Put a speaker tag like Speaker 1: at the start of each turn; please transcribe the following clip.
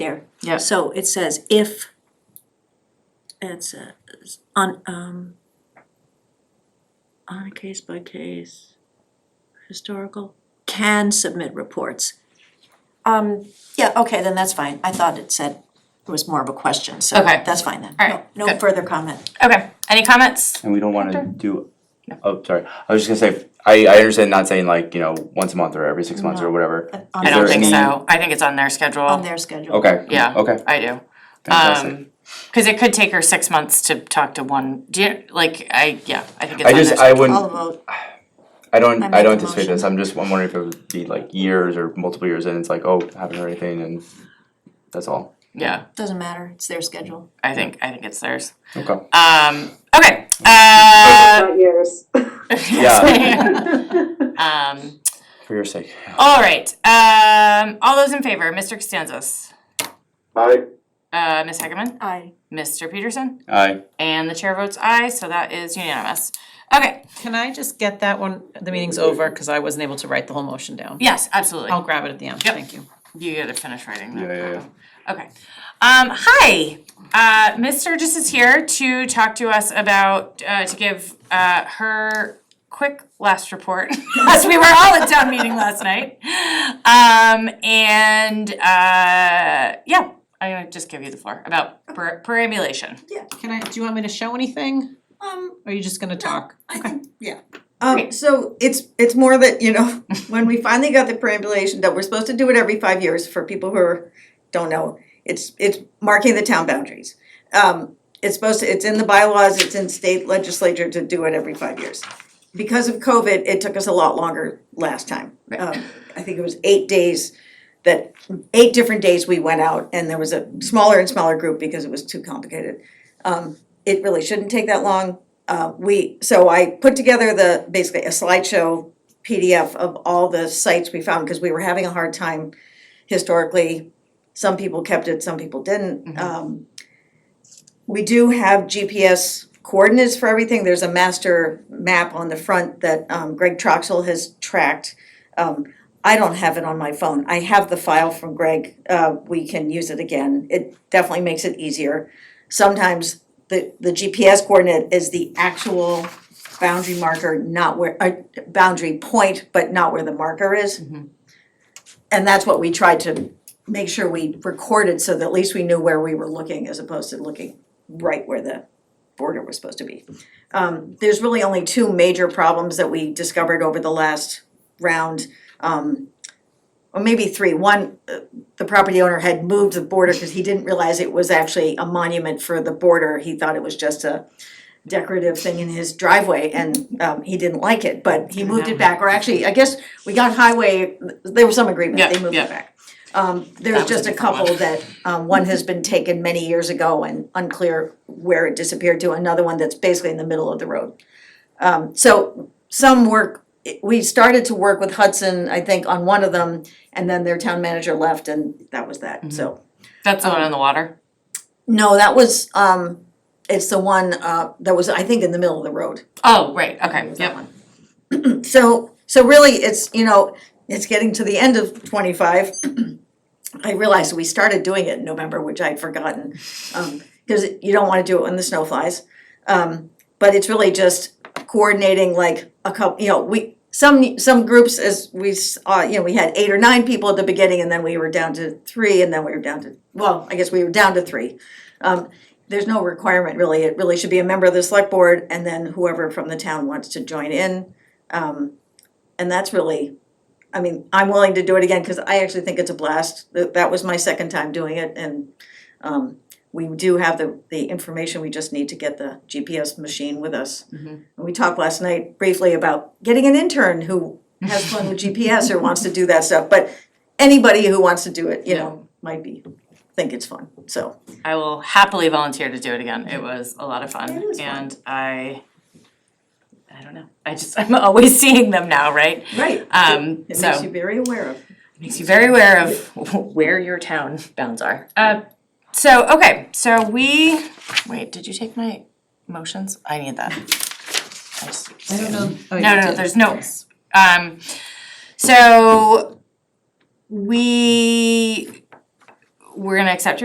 Speaker 1: there.
Speaker 2: Yeah.
Speaker 1: So it says if it's uh, s- on um on a case by case historical can submit reports. Um, yeah, okay, then that's fine. I thought it said it was more of a question, so
Speaker 2: Okay.
Speaker 1: that's fine then.
Speaker 2: All right,
Speaker 1: No, no
Speaker 2: good.
Speaker 1: further comment.
Speaker 2: Okay, any comments?
Speaker 3: And we don't wanna do, oh, sorry, I was just gonna say, I I understand not saying like, you know, once a month or every six months or whatever.
Speaker 1: On
Speaker 2: I
Speaker 3: Is
Speaker 2: don't
Speaker 3: there
Speaker 2: think
Speaker 3: any-
Speaker 2: so, I think it's on their schedule.
Speaker 1: On their schedule.
Speaker 3: Okay,
Speaker 2: Yeah.
Speaker 3: okay,
Speaker 2: I do.
Speaker 3: fantastic.
Speaker 2: Um, cause it could take her six months to talk to one, do you, like, I, yeah, I think it's
Speaker 3: I
Speaker 2: on their
Speaker 3: just, I
Speaker 2: schedule.
Speaker 1: I'll
Speaker 3: wouldn't,
Speaker 1: vote.
Speaker 3: I don't,
Speaker 1: I
Speaker 3: I
Speaker 1: make
Speaker 3: don't
Speaker 1: the
Speaker 3: anticipate this,
Speaker 1: motion.
Speaker 3: I'm just, I'm wondering if it would be like years or multiple years and it's like, oh, haven't heard anything and that's all.
Speaker 2: Yeah,
Speaker 1: Doesn't matter. It's their schedule.
Speaker 2: I think, I think it's theirs.
Speaker 3: Okay,
Speaker 2: Um, okay, uh.
Speaker 4: Not yours.
Speaker 3: Yeah.
Speaker 2: Um,
Speaker 3: for your sake.
Speaker 2: all right, um, all those in favor, Mr. Costanzas,
Speaker 5: Aye.
Speaker 2: uh, Ms. Heckman,
Speaker 1: Aye.
Speaker 2: Mr. Peterson,
Speaker 3: Aye,
Speaker 2: and the chair votes aye, so that is unanimous. Okay,
Speaker 6: Can I just get that one, the meeting's over, cause I wasn't able to write the whole motion down.
Speaker 2: yes, absolutely.
Speaker 1: Oh.
Speaker 6: I'll grab it at the end,
Speaker 2: Yep.
Speaker 6: thank you.
Speaker 2: You gotta finish writing that.
Speaker 3: yeah, yeah, yeah.
Speaker 2: Okay. Um, hi, uh, Ms. Sturgis is here to talk to us about, uh, to give, uh, her quick last report, as we were all at town meeting last night. Um, and, uh, yeah, I'm gonna just give you the floor about per- perambulation.
Speaker 6: Can I, do you want me to show anything,
Speaker 7: Um,
Speaker 6: or are you just gonna talk?
Speaker 7: I think, yeah. Um,
Speaker 2: Great.
Speaker 7: so it's, it's more that, you know, when we finally got the perambulation done, we're supposed to do it every five years for people who are, don't know. It's, it's marking the town boundaries. Um, it's supposed to, it's in the bylaws, it's in state legislature to do it every five years. Because of COVID, it took us a lot longer last time. Um, I think it was eight days that, eight different days we went out and there was a smaller and smaller group because it was too complicated. Um, it really shouldn't take that long. Uh, we, so I put together the, basically a slideshow PDF of all the sites we found, because we were having a hard time historically. Some people kept it, some people didn't. Um, we do have GPS coordinates for everything. There's a master map on the front that um, Greg Troxel has tracked. Um, I don't have it on my phone. I have the file from Greg. Uh, we can use it again. It definitely makes it easier. Sometimes the, the GPS coordinate is the actual boundary marker, not where, uh, boundary point, but not where the marker is. And that's what we tried to make sure we recorded so that at least we knew where we were looking as opposed to looking right where the border was supposed to be. Um, there's really only two major problems that we discovered over the last round. Um, or maybe three. One, uh, the property owner had moved the border because he didn't realize it was actually a monument for the border. He thought it was just a decorative thing in his driveway and um he didn't like it, but he moved it back, or actually, I guess we got highway, there was some agreement,
Speaker 2: Yeah,
Speaker 7: they moved
Speaker 2: yeah.
Speaker 7: it back. Um
Speaker 2: That
Speaker 7: there's
Speaker 2: was
Speaker 7: just
Speaker 2: a
Speaker 7: a
Speaker 2: different one.
Speaker 7: couple that, um one has been taken many years ago and unclear where it disappeared to, another one that's basically in the middle of the road. Um so some work, we started to work with Hudson, I think, on one of them, and then their town manager left and that was that, so.
Speaker 2: That's the one on the water.
Speaker 7: No, that was, um, it's the one, uh, that was, I think, in the middle of the road.
Speaker 2: Oh, right, okay,
Speaker 7: was that
Speaker 2: yep.
Speaker 7: one. So, so really, it's, you know, it's getting to the end of twenty-five. I realized we started doing it in November, which I'd forgotten, um, cause you don't wanna do it when the snow flies. Um, but it's really just coordinating like a couple, you know, we, some, some groups as we, s- uh, you know, we had eight or nine people at the beginning and then we were down to three and then we were down to, well, I guess we were down to three. Um, there's no requirement really, it really should be a member of the select board and then whoever from the town wants to join in. Um, and that's really, I mean, I'm willing to do it again, cause I actually think it's a blast, that, that was my second time doing it and, um, we do have the, the information, we just need to get the GPS machine with us.
Speaker 2: Mm-hmm.
Speaker 7: And we talked last night briefly about getting an intern who has fun with GPS or wants to do that stuff, but anybody who wants to do it, you know, might be, think it's fun, so.
Speaker 2: I will happily volunteer to do it again. It was a lot of fun
Speaker 7: It was fun.
Speaker 2: and I, I don't know, I just, I'm always seeing them now, right?
Speaker 7: Right.
Speaker 2: Um,
Speaker 7: It
Speaker 2: so.
Speaker 7: makes you very aware of.
Speaker 2: Makes you very aware of where your town bounds are. Uh, so, okay, so we, wait, did you take my motions? I need that. I just-
Speaker 6: I don't know. Oh, you
Speaker 2: No, no, no,
Speaker 6: did.
Speaker 2: there's no, um, so we, we're gonna accept your